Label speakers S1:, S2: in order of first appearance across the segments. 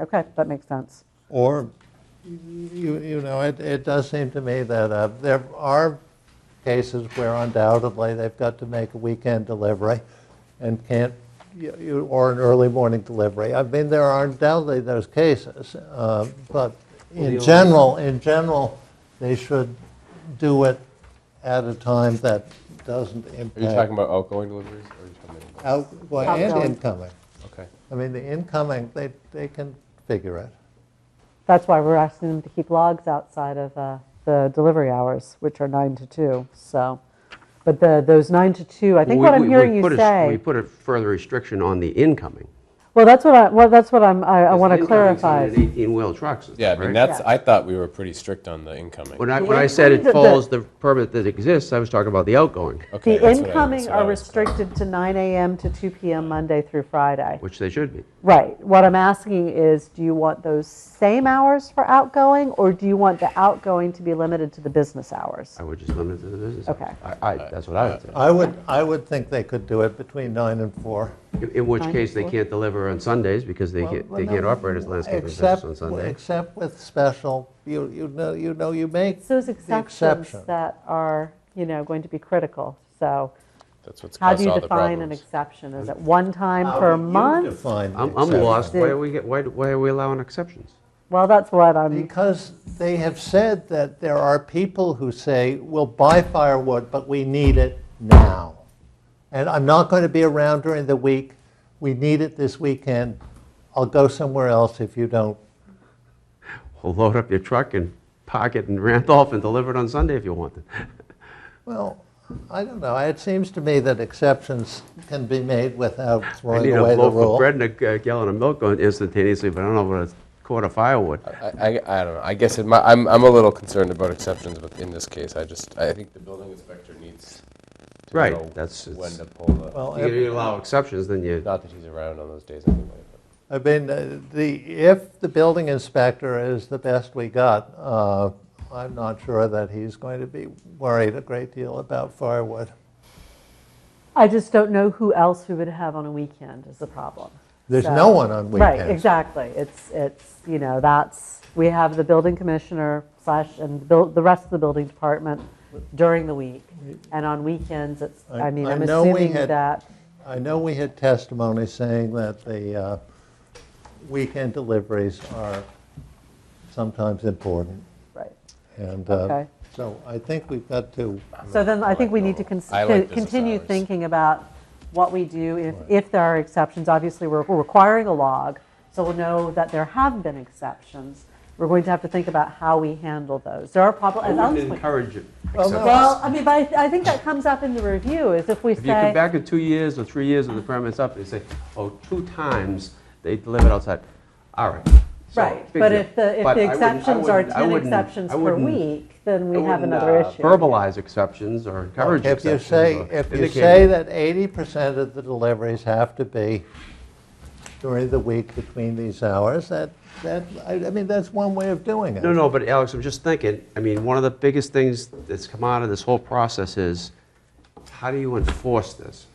S1: Okay, that makes sense.
S2: Or, you, you know, it, it does seem to me that uh, there are cases where undoubtedly they've got to make a weekend delivery and can't, you- you- or an early morning delivery. I mean, there are undoubtedly those cases, uh, but in general, in general, they should do it at a time that doesn't
S3: Are
S4: Uh,
S3: you talking
S2: impact
S3: about outgoing deliveries or are you talking about incoming?
S2: outgoing and
S1: Outgoing.
S2: incoming.
S3: Okay.
S2: I mean, the incoming, they, they can figure it.
S1: That's why we're asking them to keep logs outside of uh, the delivery hours, which are nine to two, so. But the, those nine to two, I think
S4: Well,
S1: what
S4: we-
S1: I'm
S4: we-
S1: hearing
S4: we
S1: you
S4: put a- We
S1: say,
S4: put a further restriction on the incoming.
S1: well, that's what I, well, that's what I'm, I- I want to
S4: Because the
S1: clarify.
S4: incoming's on an 18-wheel trucks.
S3: Yeah, I mean,
S4: right?
S3: that's, I thought we were pretty strict on the incoming.
S4: When I,
S1: The
S4: when I said it
S1: incoming- the-
S4: follows the permit that exists, I was talking about the outgoing,
S3: Okay,
S1: The
S3: that's what I- that's
S1: incoming
S3: what I
S1: are
S3: was-
S1: restricted to nine AM to two PM Monday through Friday.
S4: which they should be.
S1: Right, what I'm asking is, do you want those same hours for outgoing, or do you want the outgoing to be limited to the business hours?
S4: I would just limit it to the business.
S1: Okay.
S4: hours. I, I, that's what I would say.
S2: I would, I would think they could do it between nine and four.
S4: In- In which
S1: Fine.
S4: case, they can't deliver on Sundays because they can't, they can't operate as landscaping business
S2: Except-
S4: on Sundays.
S2: Except with special, you, you know, you know, you make
S1: It's those
S2: the
S1: exceptions
S2: exception.
S1: that are, you know, going to be critical. So
S3: That's what's
S1: how do
S3: caused
S1: you
S3: all the
S1: define an
S3: problems.
S1: exception? Is it one time
S2: How
S1: per
S2: do you
S1: month?
S2: define the
S4: I'm, I'm
S2: exception?
S4: lost. Why are we, get- why, do- why are we allowing exceptions?
S1: Well, that's what I'm,
S2: Because they have said that there are people who say, we'll buy firewood, but we need it now. And I'm not going to be around during the week. We need it this weekend. I'll go somewhere else if you don't.
S4: Well, load up your truck and park it in Randolph and deliver it on Sunday if you want it.
S2: Well, I don't know. It seems to me that exceptions can be made without
S4: I
S2: throwing
S4: need a
S2: away the
S4: loaf
S2: rule.
S4: of bread and a g- gallon of milk going instantaneously, but I don't know about a quart of firewood.
S3: I, I, I don't know, I guess it mi- I'm, I'm a little concerned about exceptions, but in this case, I just, I think the building inspector needs to
S4: Right,
S3: know
S4: that's-
S3: when
S4: it's-
S3: to pull the,
S2: Well,
S4: You- You allow exceptions, then you,
S3: not that he's around on those days anyway. but-
S2: I mean, uh, the, if the building inspector is the best we got, uh, I'm not sure that he's going to be worried a great deal about firewood.
S1: I just don't know who else we would have on a weekend is the problem.
S2: There's
S1: So-
S2: no one on
S1: Right,
S2: weekends.
S1: exactly. It's, it's, you know, that's, we have the building commissioner slash, and the buil- the rest of the building department during the week. And on weekends, it's,
S2: I-
S1: I mean,
S2: I
S1: I'm
S2: know we
S1: assuming
S2: had-
S1: that,
S2: I know we had testimony saying that the uh, weekend deliveries are sometimes important.
S1: right.
S2: And uh,
S1: Okay.
S2: so I think we've got to,
S1: So then I think we need to
S3: normal.
S1: cons-
S3: I like
S1: to
S3: business
S1: continue
S3: hours.
S1: thinking about what we do if, if there are exceptions. Obviously, we're we're requiring a log, so we'll know that there have been exceptions. We're going to have to think about how we handle those. There are problems, as
S4: I would
S1: Ellis pointed-
S4: encourage it.
S2: no.
S1: well, I mean, but I th- I think that comes up in the review, is if we
S4: If you come
S1: say,
S4: back in two years or three years and the permit's up, they say, oh, two times they delivered outside. All right. So,
S1: right,
S4: big
S1: but
S4: deal.
S1: if the, if
S4: But
S1: the
S4: I wouldn't- I
S1: exceptions are
S4: wouldn't- I
S1: 10
S4: wouldn't-
S1: exceptions
S4: I
S1: per
S4: wouldn't-
S1: week, then we
S4: I
S1: have
S4: wouldn't,
S1: another
S4: uh,
S1: issue.
S4: Verbalize exceptions or encourage
S2: if you
S4: exceptions.
S2: say,
S4: or
S2: if you
S4: indicate
S2: say that 80% of the deliveries have to be during the week between these hours, that, that, I I mean, that's one way of doing it.
S4: No, no, but Alex, I'm just thinking, I mean, one of the biggest things that's come out of this whole process is, how do you enforce this?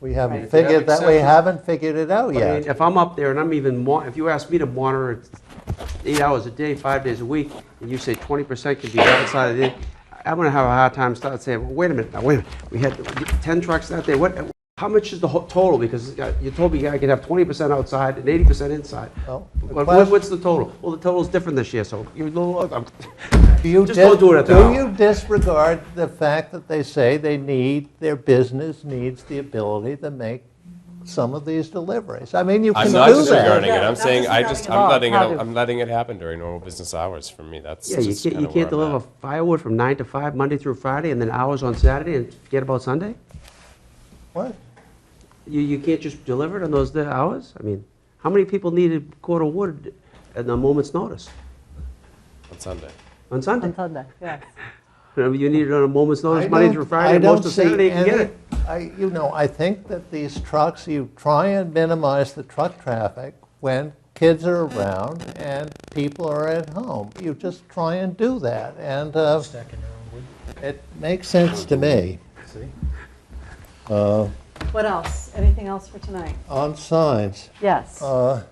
S2: We
S1: Right.
S2: haven't
S1: If you
S3: have
S2: figured that, we
S3: exceptions-
S2: haven't figured it out
S4: I mean,
S2: yet.
S4: if I'm up there and I'm even, mo- if you ask me to monitor it eight hours a day, five days a week, and you say 20% can be outside of the, I'm gonna have a hard time starting saying, well, wait a minute, now, wait a minute, we had 10 trucks that day, what, how much is the whole total? Because uh, you told me I could have 20% outside and 80% inside.
S2: Well, the
S4: What-
S2: question-
S4: what- What's the total? Well, the total's different this year, so you're a little, I'm-
S2: Do you
S4: just don't
S2: dis-
S4: do it at the hour.
S2: you disregard the fact that they say they need, their business needs the ability to make some of these deliveries? I mean, you can
S3: I'm
S2: do
S3: not
S2: that.
S3: disregarding it,
S1: Yeah,
S3: I'm
S1: not
S3: saying, I
S1: disregarding
S3: just,
S1: it
S3: I'm
S1: all.
S3: letting it,
S1: How do-
S3: I'm letting it happen during normal business hours for me, that's
S4: Yeah, you
S3: just
S4: can't,
S3: kind
S4: you
S3: of where
S4: can't
S3: I'm
S4: deliver
S3: at.
S4: firewood from nine to five, Monday through Friday, and then hours on Saturday, and forget about Sunday?
S2: What?
S4: You, you can't just deliver it on those the hours? I mean, how many people need a cord of wood at a moment's notice
S3: On Sunday.
S4: on Sunday?
S1: On Sunday, yes.
S4: I mean, You need it on a moment's
S2: I
S4: notice, Monday
S2: don't-
S4: through
S2: I
S4: Friday, and
S2: don't
S4: most of
S2: see
S4: Saturday, you can get
S2: any-
S4: it.
S2: I, you know, I think that these trucks, you try and minimize the truck traffic when kids are around and people are at home. You just try and do that, and uh, it makes sense to me.
S1: What else? Anything else for tonight?
S2: On signs,
S1: Yes.
S2: uh,